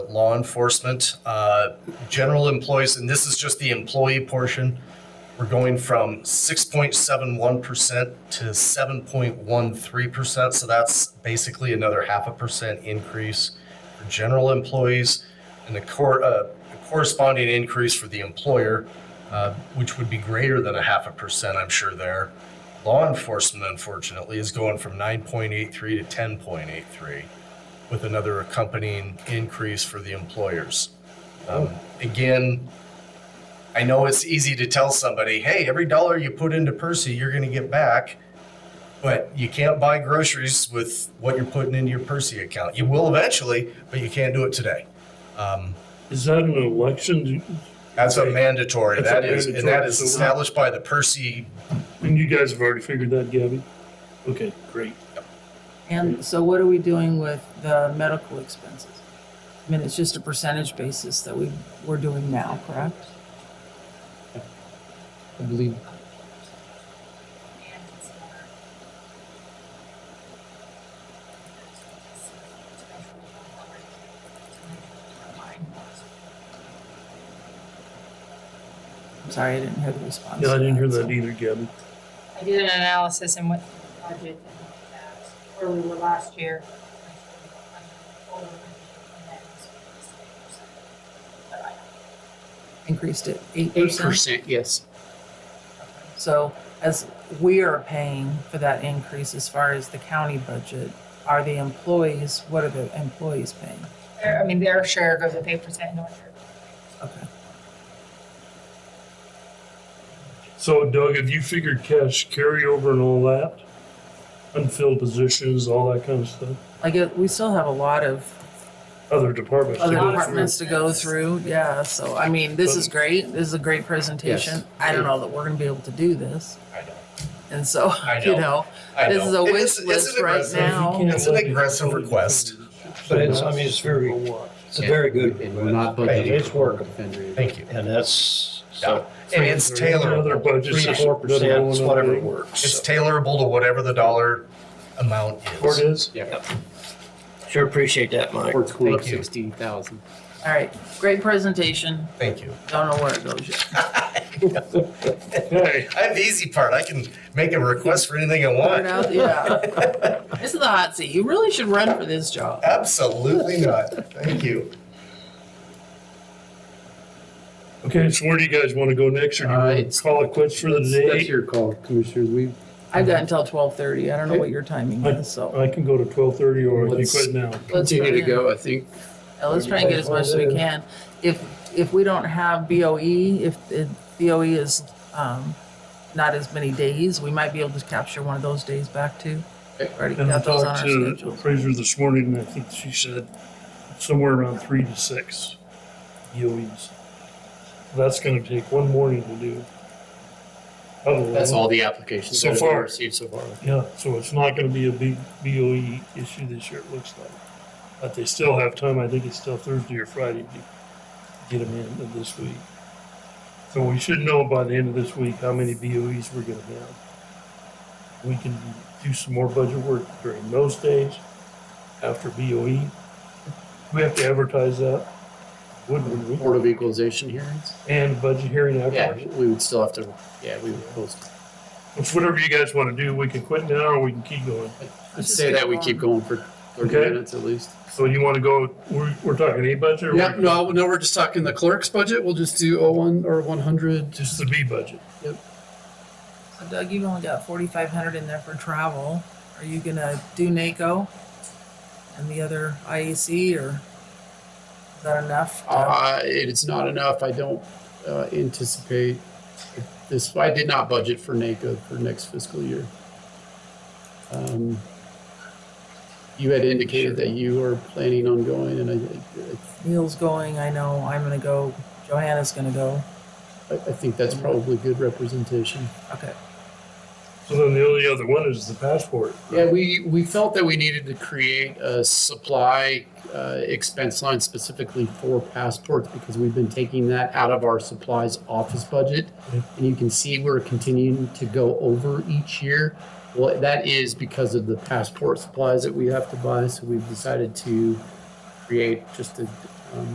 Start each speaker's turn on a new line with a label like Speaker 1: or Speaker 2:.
Speaker 1: law enforcement, uh, general employees, and this is just the employee portion. We're going from six point seven one percent to seven point one three percent, so that's basically another half a percent increase for general employees and a cor- uh, a corresponding increase for the employer, uh, which would be greater than a half a percent, I'm sure there. Law enforcement, unfortunately, is going from nine point eight three to ten point eight three with another accompanying increase for the employers. Um,
Speaker 2: Oh.
Speaker 1: Again, I know it's easy to tell somebody, hey, every dollar you put into Percy, you're going to get back. But you can't buy groceries with what you're putting into your Percy account. You will eventually, but you can't do it today. Um,
Speaker 2: Is that an election? Do-
Speaker 1: that's a
Speaker 2: Right.
Speaker 1: mandatory.
Speaker 2: That's a
Speaker 1: That is, and
Speaker 2: mandatory,
Speaker 1: that is
Speaker 2: so we're not-
Speaker 1: established by the Percy.
Speaker 2: And you guys have already figured that, Gabby? Okay, great.
Speaker 3: And so what are we doing with the medical expenses? I mean, it's just a percentage basis that we, we're doing now, correct?
Speaker 4: I believe
Speaker 3: I'm sorry, I didn't hear the response.
Speaker 2: Yeah, I
Speaker 3: to
Speaker 2: didn't hear
Speaker 3: so-
Speaker 2: that either, Gabby.
Speaker 5: I did an analysis and went through the budget and looked at where we were last year. But I-
Speaker 3: Increased it eight
Speaker 4: eight
Speaker 3: percent.
Speaker 4: percent. Yes.
Speaker 3: So as we are paying for that increase as far as the county budget, are the employees, what are the employees paying?
Speaker 5: Their, I mean, their share goes at eight percent, North Dakota.
Speaker 3: Okay.
Speaker 2: So Doug, have you figured cash carryover and all that? Unfilled positions, all that kind of stuff?
Speaker 3: Like, it- we still have a lot of
Speaker 2: Other departments. to
Speaker 3: other
Speaker 2: go through.
Speaker 3: departments to go through, yeah, so, I mean, this is great, this is a great presentation.
Speaker 4: Yes.
Speaker 3: I don't know that we're gonna be able to do this,
Speaker 1: I know.
Speaker 3: and so,
Speaker 1: I
Speaker 3: you
Speaker 1: know.
Speaker 3: know,
Speaker 1: I
Speaker 3: This
Speaker 1: know.
Speaker 3: is a
Speaker 1: It
Speaker 3: wish
Speaker 1: it's
Speaker 3: list
Speaker 1: an
Speaker 3: right
Speaker 1: aggressive-
Speaker 3: now.
Speaker 2: You can't
Speaker 1: It's an
Speaker 2: let
Speaker 1: aggressive
Speaker 2: people-
Speaker 1: request.
Speaker 6: But it's, I mean, it's very, it's a very good.
Speaker 4: And we're not budgeting.
Speaker 6: Hey, It's
Speaker 4: for
Speaker 6: working,
Speaker 4: Defender.
Speaker 1: Thank you.
Speaker 6: and that's,
Speaker 1: Yeah.
Speaker 6: so,
Speaker 1: And it's
Speaker 2: Other
Speaker 1: tailorable.
Speaker 2: budgets.
Speaker 6: three, four percent, it's whatever
Speaker 2: Or
Speaker 6: works.
Speaker 1: It's
Speaker 6: so.
Speaker 1: tailorable to whatever the dollar amount
Speaker 2: it
Speaker 1: is.
Speaker 2: is?
Speaker 4: Yeah.
Speaker 6: Sure appreciate that, Mike.
Speaker 4: Or it's going up
Speaker 1: Thank you.
Speaker 4: sixteen thousand.
Speaker 3: all right, great presentation,
Speaker 1: Thank you.
Speaker 3: don't know where it goes yet.
Speaker 2: Okay.
Speaker 1: I have the easy part. I can make a request for anything I
Speaker 3: Put it
Speaker 1: want.
Speaker 3: out- yeah. This is the hot seat, you really should run for this job.
Speaker 1: Absolutely not. Thank you.
Speaker 2: Okay, so where do you guys want to go next, or do you
Speaker 4: Uh,
Speaker 2: want
Speaker 4: it's-
Speaker 2: to call it quits for the
Speaker 4: That's
Speaker 2: day?
Speaker 4: your call, commissioners. We,
Speaker 3: I've got until twelve thirty, I don't know what your timing is, so,
Speaker 2: I can go to twelve thirty, or I can
Speaker 4: Let's-
Speaker 2: quit now.
Speaker 3: Let's
Speaker 4: continue to
Speaker 3: try
Speaker 4: go, I think.
Speaker 3: yeah, let's try and get as much as we can. If, if we don't have BOE, if, if BOE is, um, not as many days, we might be able to capture one of those days back too. Already
Speaker 2: And I
Speaker 3: got those on our
Speaker 2: talked to
Speaker 3: schedule.
Speaker 2: appraiser this morning, and I think she said somewhere around three to six EOEs. That's gonna take one morning to do. I don't know.
Speaker 4: That's all the applications
Speaker 2: So
Speaker 4: that have
Speaker 2: far.
Speaker 4: been received so far.
Speaker 2: Yeah, so it's not gonna be a big BOE issue this year, it looks like. But they still have time, I think it's still Thursday or Friday to get them in of this week. So we should know by the end of this week how many BOEs we're gonna have. We can do some more budget work during those days after BOE. We have to advertise that, wouldn't we?
Speaker 4: Board of Equalization hearings?
Speaker 2: And budget hearing
Speaker 4: Yeah,
Speaker 2: afterwards.
Speaker 4: we would still have to, yeah, we would post.
Speaker 2: It's whatever you guys wanna do, we can quit now or we can keep going.
Speaker 4: Let's say that we keep going for thirty
Speaker 2: Okay.
Speaker 4: minutes at least.
Speaker 2: So you wanna go, we're, we're talking A budget? or
Speaker 4: Yeah,
Speaker 2: we're-
Speaker 4: no, no, we're just talking the clerk's budget. We'll just do oh one or one hundred.
Speaker 2: Just the B budget.
Speaker 3: So Doug, you've only got forty-five hundred in there for travel. Are you gonna do NACO? And the other IEC or is that enough? to-
Speaker 4: Uh, it's not enough. I don't uh, anticipate this. I did not budget for NACO for next fiscal year. Um, you had indicated that you are planning on going, and I,
Speaker 3: Neil's going, I know, I'm gonna go, Johanna's gonna go.
Speaker 4: I, I think that's probably good representation.
Speaker 3: Okay,
Speaker 2: So then the only other one is the passport.
Speaker 4: Yeah, we, we felt that we needed to create a supply uh, expense line specifically for passports because we've been taking that out of our supplies office budget.
Speaker 2: Yeah.
Speaker 4: And you can see we're continuing to go over each year. Well, that is because of the passport supplies that we have to buy. So we've decided to create just a um,